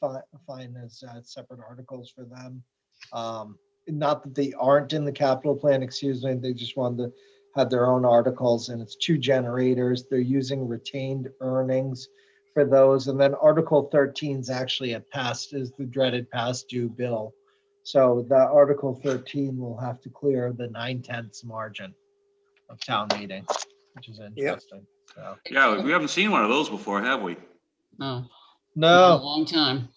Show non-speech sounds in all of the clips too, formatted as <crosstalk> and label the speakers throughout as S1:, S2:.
S1: fi- find as uh, separate articles for them. Um, Not that they aren't in the capital plan, excuse me, they just wanted to have their own articles and it's two generators. They're using retained earnings for those. And then Article 13 is actually a past, is the dreaded past due bill. So the Article 13 will have to clear the nine tenths margin of town meeting, which is interesting. So-
S2: Yeah, we haven't seen one of those before, have we?
S3: Oh, a
S1: No.
S3: long time.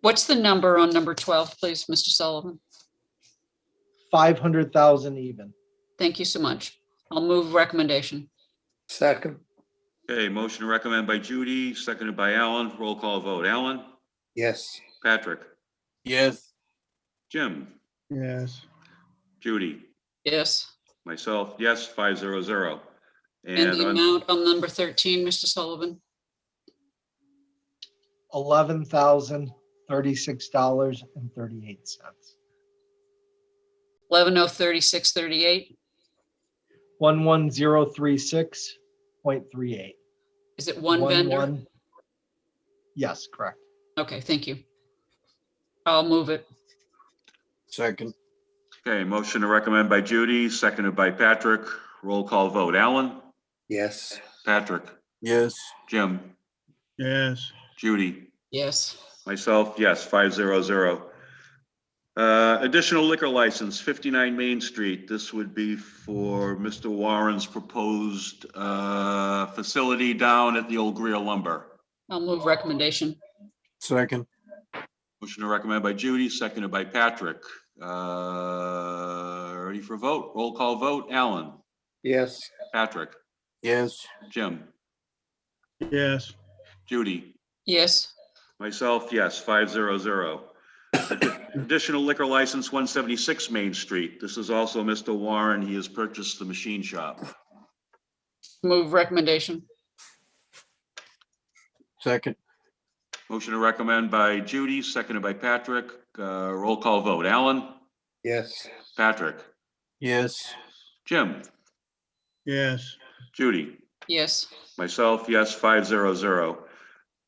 S3: What's the number on number 12, please, Mr. Sullivan?
S1: five hundred thousand even.
S3: Thank you so much. I'll move recommendation.
S4: Second,
S2: Okay, motion to recommend by Judy, seconded by Alan. Roll call vote. Alan?
S4: yes.
S2: Patrick?
S5: Yes,
S2: Jim?
S6: Yes,
S2: Judy?
S3: Yes.
S2: Myself, yes, five zero zero.
S3: And the
S2: And on-
S3: amount on number 13, Mr. Sullivan?
S1: Eleven thousand thirty-six dollars and thirty-eight cents.
S3: 1103638.
S1: One one zero three six point three eight.
S3: Is it one vendor?
S1: Yes, correct.
S3: Okay, thank you. I'll move it.
S5: second,
S2: okay, motion to recommend by Judy, seconded by Patrick. Roll call vote. Alan?
S4: Yes,
S2: Patrick?
S5: yes,
S2: Jim?
S6: yes,
S2: Judy?
S3: Yes.
S2: Myself, yes, five zero zero. Uh, additional liquor license, fifty-nine Main Street. This would be for Mr. Warren's proposed, uh, facility down at the old Greer lumber.
S3: I'll move recommendation.
S5: second,
S2: Motion to recommend by Judy, seconded by Patrick. Uh, ready for vote? Roll call vote. Alan?
S4: yes,
S2: Patrick?
S5: yes,
S2: Jim?
S6: yes,
S2: Judy?
S3: Yes.
S2: Myself, yes, five zero zero. Additional liquor license, one seventy-six Main Street. This is also Mr. Warren. He has purchased the machine shop.
S3: Move recommendation.
S5: second,
S2: Motion to recommend by Judy, seconded by Patrick. Uh, roll call vote. Alan?
S4: yes,
S2: Patrick?
S5: yes,
S2: Jim?
S6: yes,
S2: Judy?
S3: Yes.
S2: Myself, yes, five zero zero.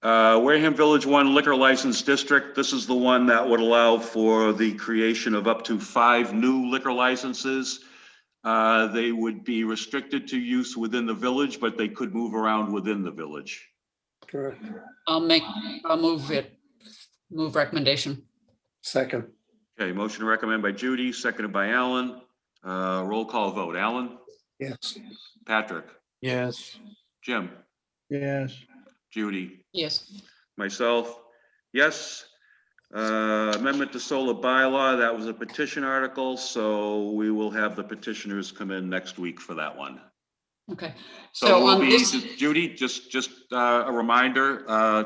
S2: Uh, Wareham Village One Liquor License District, this is the one that would allow for the creation of up to five new liquor licenses. Uh, they would be restricted to use within the village, but they could move around within the village.
S4: correct.
S3: I'll make, I'll move it. Move recommendation.
S4: Second,
S2: Okay, motion to recommend by Judy, seconded by Alan. Uh, roll call vote. Alan?
S4: yes,
S2: Patrick?
S5: yes,
S2: Jim?
S6: yes,
S2: Judy?
S3: Yes.
S2: Myself, yes. Uh, Amendment to solar bylaw, that was a petition article, so we will have the petitioners come in next week for that one.
S3: Okay.
S2: So
S3: So
S2: we'll
S3: on
S2: be,
S3: this,
S2: Judy, just, just uh, a reminder uh,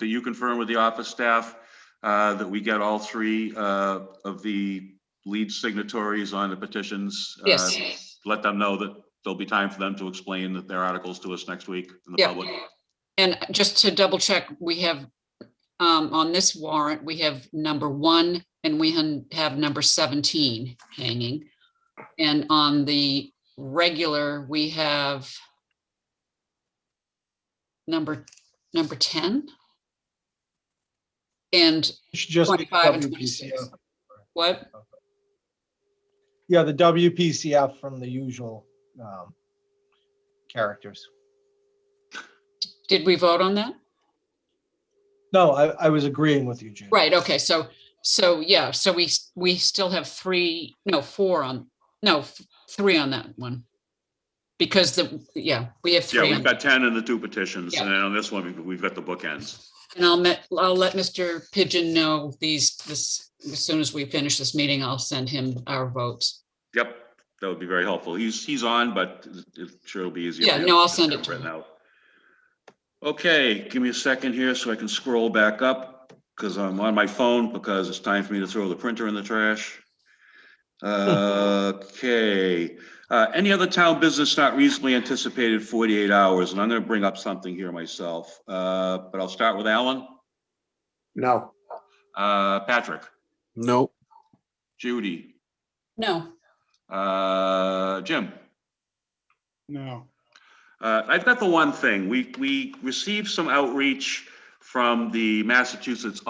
S2: that you confirm with the office staff uh, that we get all three uh, of the lead signatories on the petitions. uh,
S3: yes.
S2: Let them know that there'll be time for them to explain that their articles to us next week in the
S3: Yeah.
S2: public.
S3: And just to double check, we have, um, on this warrant, we have number one and we hun- have number seventeen hanging. And on the regular, we have number, number ten? And
S1: It should just be
S3: 25 and
S1: WPCF.
S3: 26. what?
S1: Yeah, the WPCF from the usual um, characters.
S3: Did we vote on that?
S1: No, I, I was agreeing with you, Judy.
S3: Right, okay, so, so, yeah, so we, s- we still have three, no, four on, no, f- three on that one. Because the, yeah, we have
S2: Yeah,
S3: three. on-
S2: we've got 10 in the two petitions,
S3: Yeah.
S2: and on this one, we've- we've got the bookends.
S3: And I'll met, I'll let Mr. Pigeon know these, this, as soon as we finish this meeting, I'll send him our votes.
S2: Yep, that would be very helpful. He's, he's on, but it sure will be easier.
S3: Yeah,
S2: for him
S3: no, I'll
S2: to
S3: send
S2: get
S3: it to
S2: written
S3: him.
S2: out. Okay, give me a second here so I can scroll back up because I'm on my phone because it's time for me to throw the printer in the
S3: <laughs>
S2: trash. Okay, uh, any other town business not reasonably anticipated forty-eight hours, and I'm gonna bring up something here myself, uh, but I'll start with Alan,
S4: no,
S2: uh, Patrick,
S5: no,
S2: Judy,
S3: No,
S2: uh, Jim.
S6: no,
S2: Uh, I've got the one thing. We, we received some outreach from the Massachusetts